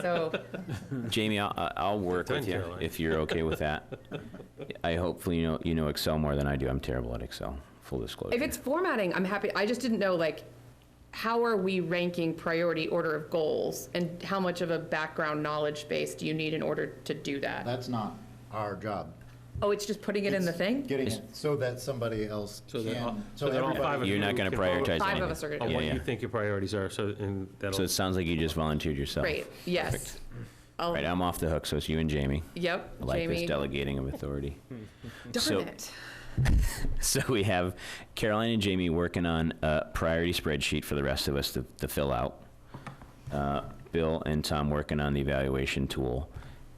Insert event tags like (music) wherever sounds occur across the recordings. So, Jamie, I'll, I- I'll work done, with you Caroline. if you're okay with that. I hopefully, you know, you know Excel more than I do. I'm terrible at Excel, full disclosure. if it's formatting, I'm happy, I just didn't know, like, how are we ranking priority order of goals? And how much of a background knowledge base do you need in order to do that? That's not our job. Oh, it's just putting it in the thing? Getting it so that somebody else So that all- can, so so that all five of everybody. You're not you going to can vote. prioritize anything. Five of us are gonna do On Yeah, what yeah. you think your priorities are, so, and So that'll, it sounds like you just volunteered yourself. Great, yes. I'll- All right, I'm off the hook, so it's you and Jamie. Yep, I like this Jamie. delegating of authority. Darn So- it. (laughs) So we have Caroline and Jamie working on a priority spreadsheet for the rest of us to, to fill out. Uh, Bill and Tom working on the evaluation tool.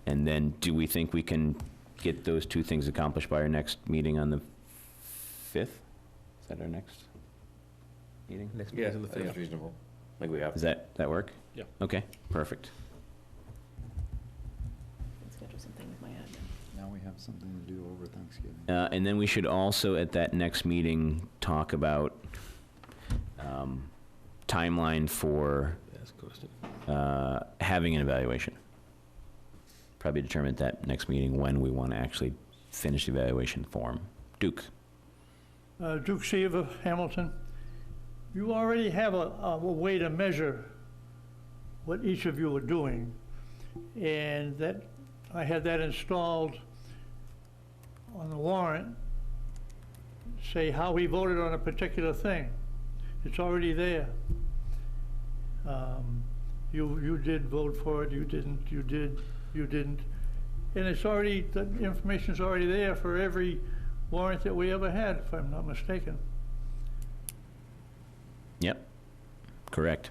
And then do we think we can get those two things accomplished by our next meeting on the 5th? Is that our next meeting? Next Yeah, meeting's on the I think fifth. it's reasonable. Like we have. Does that, that work? Yeah. Okay, perfect. Schedule something with my admin. Now we have something to do over Thanksgiving. Uh, And then we should also, at that next meeting, talk about um, timeline for that's a question. uh, having an evaluation. Probably determine at that next meeting when we want to actually finish the evaluation form. Duke? Uh, Duke Seaver, Hamilton, you already have a, a way to measure what each of you are doing. And that, I had that installed on the warrant, say how we voted on a particular thing. It's already there. Um, You, you did vote for it, you didn't, you did, you didn't. And it's already, the information's already there for every warrant that we ever had, if I'm not mistaken. Yep. Correct.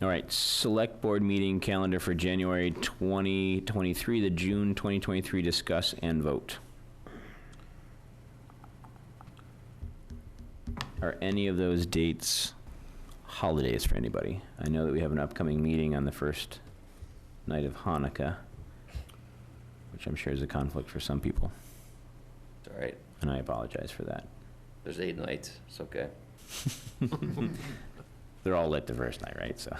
All right, select board meeting calendar for January 2023, the June 2023 discuss and vote. Are any of those dates holidays for anybody? I know that we have an upcoming meeting on the first night of Hanukkah, which I'm sure is a conflict for some people, All right, and I apologize for that. there's eight nights, it's okay. (laughs) They're all lit the first night, right? So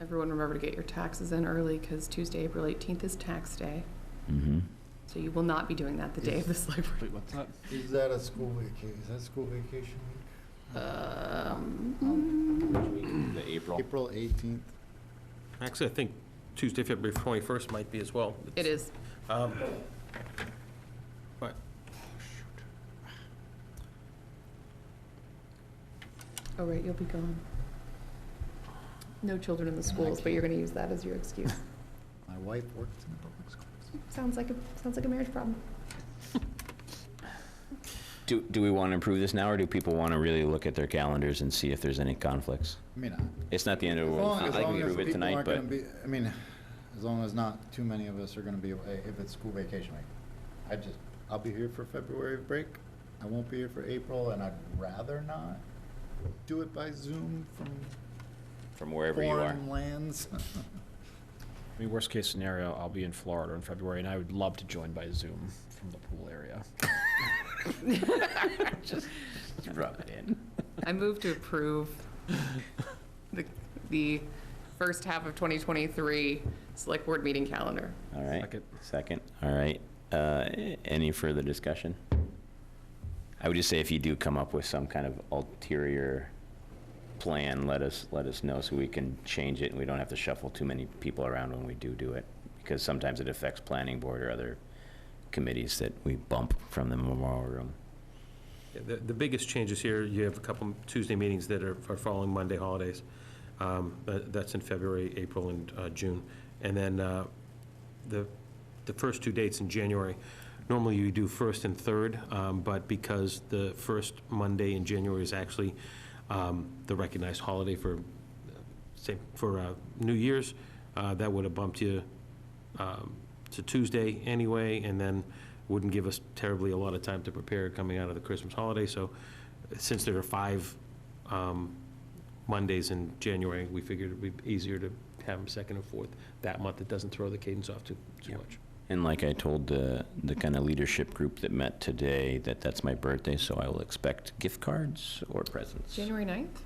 Everyone remember to get your taxes in early, because Tuesday, April 18th is tax day. So you will not be doing that the day of the select board. Wait, what's that? Is that a school vacation, is that school vacation week? um, the April. April 18th? Actually, I think Tuesday, February 21st might be as well. It is. Um, But, Oh, right, you'll be gone. No children in the schools, but you're going to use that as your excuse. My wife works in public schools. Sounds like a, sounds like a marriage problem. Do, do we want to improve this now, or do people want to really look at their calendars and see if there's any conflicts? I mean, I- It's not the end of the As world. long, It's not as like long we as approve it people tonight, aren't gonna but be, I mean, as long as not too many of us are gonna be away, if it's school vacation week. I just, I'll be here for February break, I won't be here for April, and I'd rather not do it by Zoom from from wherever you are. foreign lands. I mean, worst case scenario, I'll be in Florida in February, and I would love to join by Zoom from the pool area. Rub it in. I move to approve the, the first half of 2023 select board meeting calendar. All right. Second. Second. All right. Uh, any further discussion? I would just say if you do come up with some kind of ulterior plan, let us let us know so we can change it and we don't have to shuffle too many people around when we do do it because sometimes it affects planning board or other committees that we bump from the memorial room. yeah, the the biggest changes here, you have a couple Tuesday meetings that are are following Monday holidays. Um, that- That's in February, April, and uh, June. And then uh, the, the first two dates in January, normally you do first and third, um, but because the first Monday in January is actually um, the recognized holiday for, uh, say, for uh, New Year's, uh, that would have bumped you um, to Tuesday anyway, and then wouldn't give us terribly a lot of time to prepare coming out of the Christmas holiday. So since there are five um, Mondays in January, we figured it'd be easier to have them second and fourth that month. It doesn't throw the cadence off too, too much. And like I told the, the kind of leadership group that met today, that that's my birthday, so I will expect gift cards or presents. January 9th?